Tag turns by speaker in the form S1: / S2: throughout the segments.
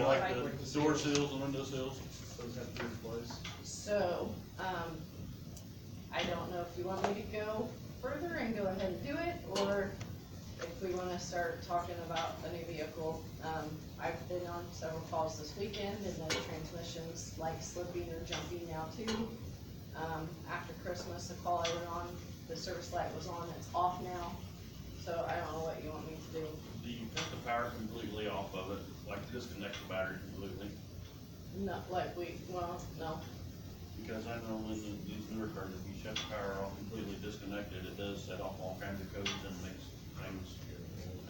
S1: like the door seals and window seals.
S2: Those have to be replaced.
S3: So, um, I don't know if you want me to go further and go ahead and do it, or if we wanna start talking about a new vehicle. Um, I've been on several calls this weekend, and the transmission's like slipping or jumping now too. Um, after Christmas, the call I went on, the service light was on, it's off now, so I don't know what you want me to do.
S1: Do you cut the power completely off of it, like disconnect the battery completely?
S3: Not like we, well, no,
S1: Because I know in the- these newer cars, if you shut the power off completely disconnected, it does set off all kinds of codes and makes things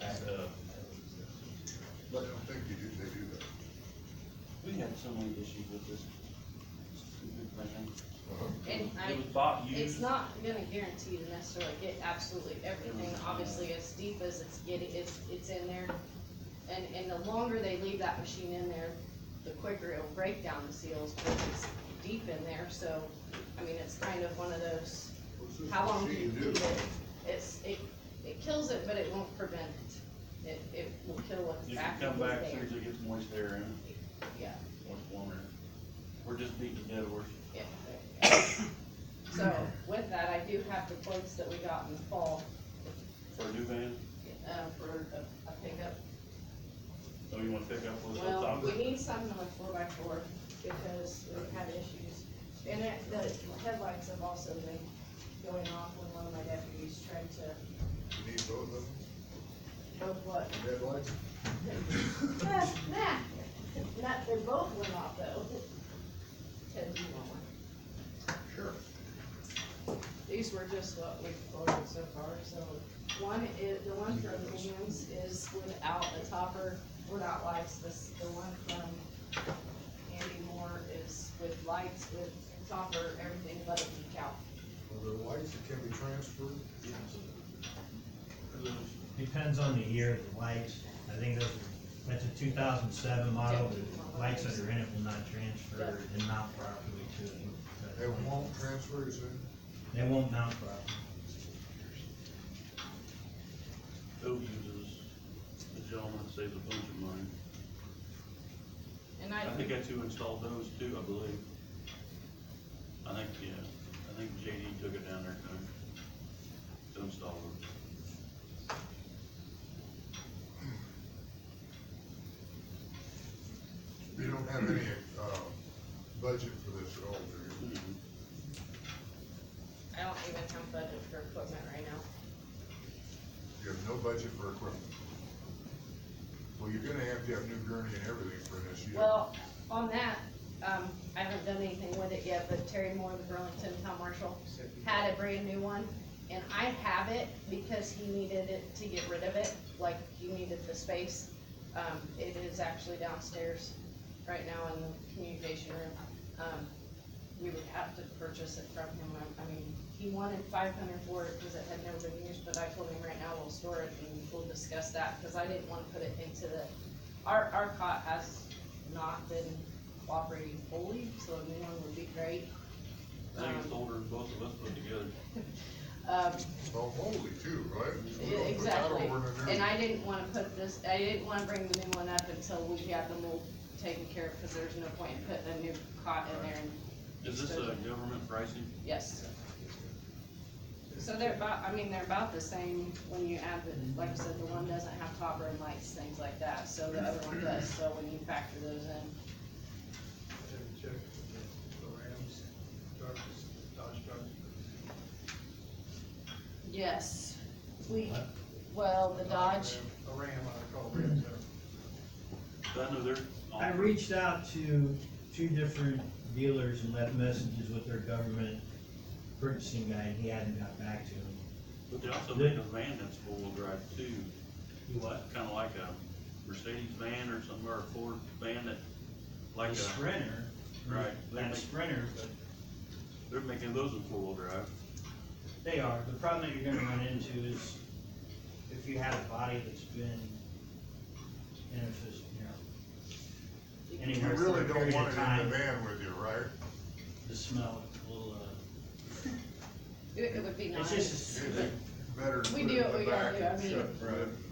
S1: act up.
S4: I don't think you do, they do that.
S1: We had so many issues with this stupid thing.
S3: and I.
S1: It was bought
S3: It's
S1: used.
S3: not gonna guarantee to necessarily get absolutely everything,
S1: Mm-hmm.
S3: obviously, as deep as it's getting, it's, it's in there. And, and the longer they leave that machine in there, the quicker it'll break down the seals, because it's deep in there, so, I mean, it's kind of one of those,
S4: What's this
S3: how long do you
S4: machine
S3: leave it? It's, it, it kills it, but it won't prevent it, it, it will kill what's
S1: It can
S3: back there.
S1: come back as soon as it gets moist air in, it,
S3: Yeah,
S1: moist warmer. We're just beating a dead horse.
S3: yeah. So, with that, I do have the quotes that we got in the fall,
S1: For a new van,
S3: uh, for a, a pickup.
S1: so you wanna pick up what's on
S3: Well,
S1: top
S3: we
S1: of it?
S3: need something on four by four because we've had issues. And it, the headlights have also been going off when one of my deputies tried to,
S4: You need both of them,
S3: oh, what?
S4: headlights?
S3: Nah, nah, not, they both went off though. Ted, do you want one?
S4: Sure.
S3: These were just what we've ordered so far, so one is, the one from Hands is without a topper, without lights, this, the one from Andy Moore is with lights, with topper, everything but a decal.
S4: Are there lights that can be transferred?
S5: Depends on the year, the lights, I think those, are- that's a two thousand seven model, the lights that are in it will not transfer and mount properly to it.
S4: They won't transfer, is it?
S5: They won't mount properly.
S1: Who uses the gentleman that saves a bunch of money?
S3: And
S1: I
S3: I,
S1: think I two installed those too, I believe. I think, yeah, I think JD took it down there to, to install them.
S4: You don't have any, uh, budget for this at all, do you?
S3: I don't even have budget for equipment right now.
S4: You have no budget for equipment. Well, you're gonna have to have new gurney and everything for this year.
S3: Well, on that, um, I haven't done anything with it yet, but Terry Moore, the Burlington Town Marshal, had a brand new one, and I have it because he needed it to get rid of it, like he needed the space. Um, it is actually downstairs right now in the communication room. Um, we would have to purchase it from him, I, I mean, he wanted five hundred for it because it had never been used, but I told him right now we'll store it and we'll discuss that, because I didn't wanna put it into the, our, our cot has not been cooperating fully, so a new one would be great.
S1: I think it's older than both of us put together.
S3: Um,
S4: Well, Oh, holy too, right? So we don't
S3: Yeah,
S4: put that
S3: Exactly,
S4: over in the new-
S3: and I didn't wanna put this, I didn't wanna bring the new one up until we had them all taken care of, cause there's no point in putting a new cot in there, and,
S1: Is this a government pricing?
S3: yes. So they're about, I mean, they're about the same when you add the, like I said, the one doesn't have topper and lights, things like that, so the other one does, so when you factor those in.
S2: Check the Rams, Dodge, Dodge truck.
S3: Yes, we, well, the Dodge,
S2: A Ram, I call Rams, they're
S1: I know they're.
S5: I reached out to two different dealers and left messages with their government purchasing guy, and he hadn't got back to me.
S1: But they also make a van that's four-wheel drive too. What? Kinda like a Mercedes van or some, or a Ford van that, like
S5: The
S1: a,
S5: Sprinter.
S1: Right.
S5: That Sprinter, but
S1: they're making those in four-wheel drive.
S5: They are. The problem that you're gonna run into is if you have a body that's been inefficient,
S4: You
S5: you know, anywhere for
S4: really
S5: a
S4: don't
S5: period
S4: want
S5: of
S4: it in the
S5: time,
S4: van with you, right?
S5: the smell will, uh,
S3: it it would be nice.
S5: it's just, a s-
S4: It's better to
S3: We
S4: put it
S3: do
S4: in
S3: what
S4: the
S3: we gotta
S4: back
S3: do, I
S4: and
S3: mean-
S4: shut it.